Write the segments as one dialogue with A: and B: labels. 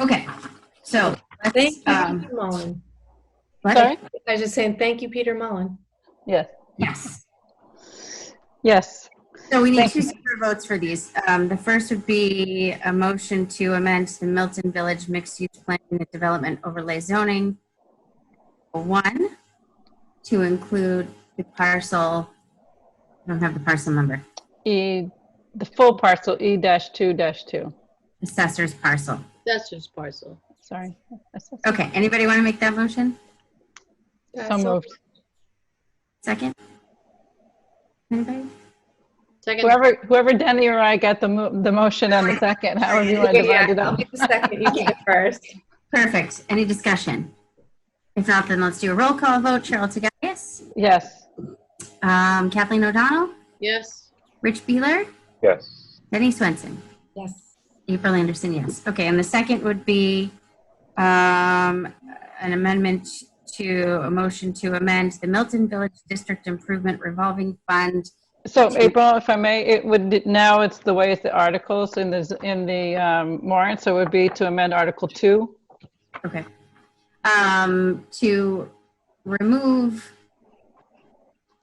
A: Okay, so
B: Thank
A: let's,
B: you,
A: um,
B: Peter Mullen.
A: what?
C: Sorry?
B: I was just saying, thank you, Peter Mullen.
C: Yes.
A: yes.
C: Yes.
A: So we need
C: Thank
A: two separate votes for these. Um, the first would be a motion to amend the Milton Village Mixed Use Plan and Development Overlay Zoning. One, to include the parcel, I don't have the parcel number,
C: E, the full parcel, E dash two dash two.
A: assessor's parcel.
D: That's just parcel.
C: Sorry. That's- that's-
A: Okay, anybody want to make that motion?
B: Uh,
C: So moved.
A: Second? Anybody?
D: Second,
C: Whoever, whoever Denny or I got the mo- the motion on the second, however you want to
B: Okay,
C: divide
B: yeah,
C: it
B: I'll
C: up.
B: be the second, you be the first.
A: Perfect. Any discussion? If not, then let's do a roll call vote. Cheryl Tagayas,
C: Yes.
A: um, Kathleen O'Donnell,
D: yes.
A: Rich Beeler,
E: yes,
A: Denny Swenson,
B: Yes.
A: April Anderson, yes. Okay, and the second would be um, an amendment to, a motion to amend the Milton Village District Improvement Revolving Fund.
C: So April, if I may, it would, now it's the way it's the articles in the, in the um, warrant, so it would be to amend Article Two.
A: Okay. Um, to remove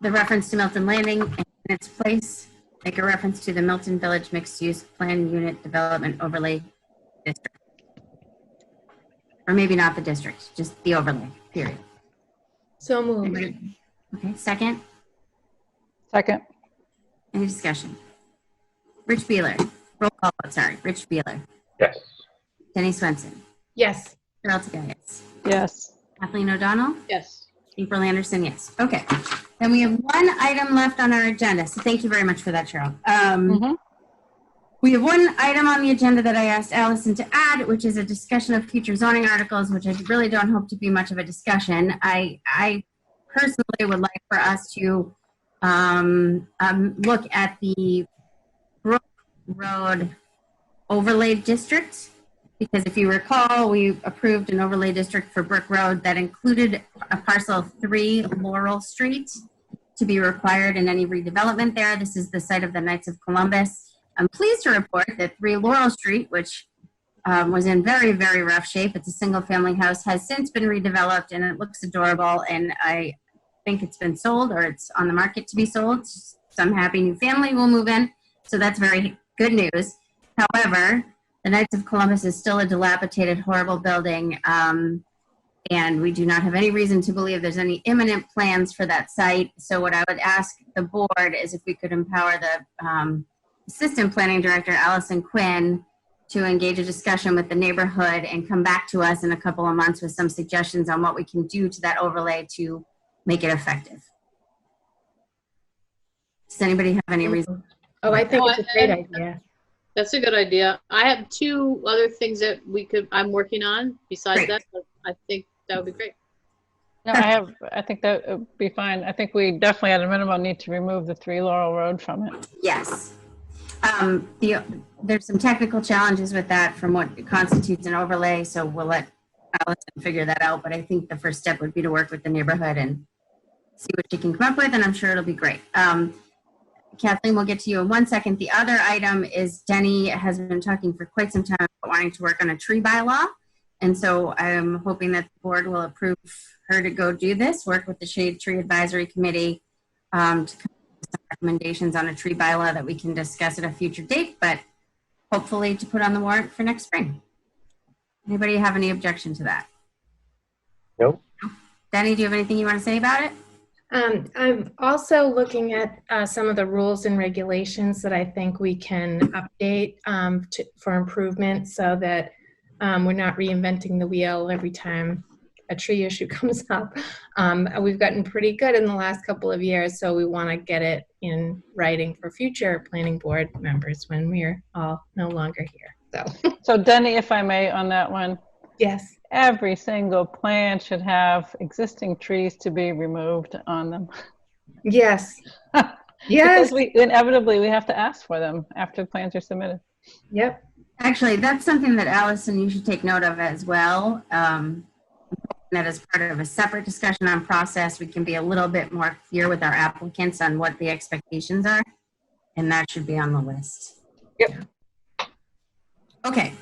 A: the reference to Milton Landing and in its place, make a reference to the Milton Village Mixed Use Plan Unit Development Overlay District. Or maybe not the district, just the overlay, period.
B: So moved.
A: Anybody- Okay, second,
C: Second.
A: any discussion? Rich Beeler, roll call, vote, sorry, Rich Beeler,
E: yes,
A: Denny Swenson,
B: Yes.
A: Cheryl Tagayas,
C: Yes.
A: Kathleen O'Donnell,
D: Yes.
A: April Anderson, yes. Okay. Then we have one item left on our agenda. So thank you very much for that, Cheryl. Um,
C: Mhm.
A: we have one item on the agenda that I asked Allison to add, which is a discussion of future zoning articles, which I really don't hope to be much of a discussion. I, I personally would like for us to um, um, look at the Brook Road overlay district. Because if you recall, we approved an overlay district for Brook Road that included a parcel of three Laurel Street to be required in any redevelopment there. This is the site of the Knights of Columbus. I'm pleased to report that three Laurel Street, which um, was in very, very rough shape, it's a single family house, has since been redeveloped and it looks adorable. And I think it's been sold or it's on the market to be sold. Some happy new family will move in. So that's very good news. However, the Knights of Columbus is still a dilapidated, horrible building. Um, and we do not have any reason to believe there's any imminent plans for that site. So what I would ask the board is if we could empower the um, Assistant Planning Director, Allison Quinn, to engage a discussion with the neighborhood and come back to us in a couple of months with some suggestions on what we can do to that overlay to make it effective. Does anybody have any reason?
B: Oh, I think
D: Oh,
B: it's a
D: I-
B: great
D: I-
B: idea.
D: That's a good idea. I have two other things that we could, I'm working on besides
A: Great.
D: that. but I think that would be great.
C: No, I have, I think that would be fine. I think we definitely at a minimum need to remove the Three Laurel Road from it.
A: Yes. Um, the, there's some technical challenges with that from what constitutes an overlay, so we'll let Allison figure that out, but I think the first step would be to work with the neighborhood and see what she can come up with, and I'm sure it'll be great. Um, Kathleen, we'll get to you in one second. The other item is Denny has been talking for quite some time about wanting to work on a tree bylaw. And so I'm hoping that the board will approve her to go do this, work with the Shade Tree Advisory Committee, um, to recommendations on a tree bylaw that we can discuss at a future date, but hopefully to put on the warrant for next spring. Anybody have any objection to that?
E: no,
A: Danny, do you have anything you want to say about it?
B: Um, I'm also looking at uh, some of the rules and regulations that I think we can update um, to, for improvement so that um, we're not reinventing the wheel every time a tree issue comes up. Um, we've gotten pretty good in the last couple of years, so we want to get it in writing for future planning board members when we're all no longer here. So,
C: So Denny, if I may, on that one,
B: yes.
C: every single plan should have existing trees to be removed on them.
B: Yes.
C: Because
B: yes.
C: we inevitably, we have to ask for them after plans are submitted.
B: Yep.
A: Actually, that's something that Allison, you should take note of as well. Um, that as part of a separate discussion on process, we can be a little bit more clear with our applicants on what the expectations are, and that should be on the list. Yep. Okay,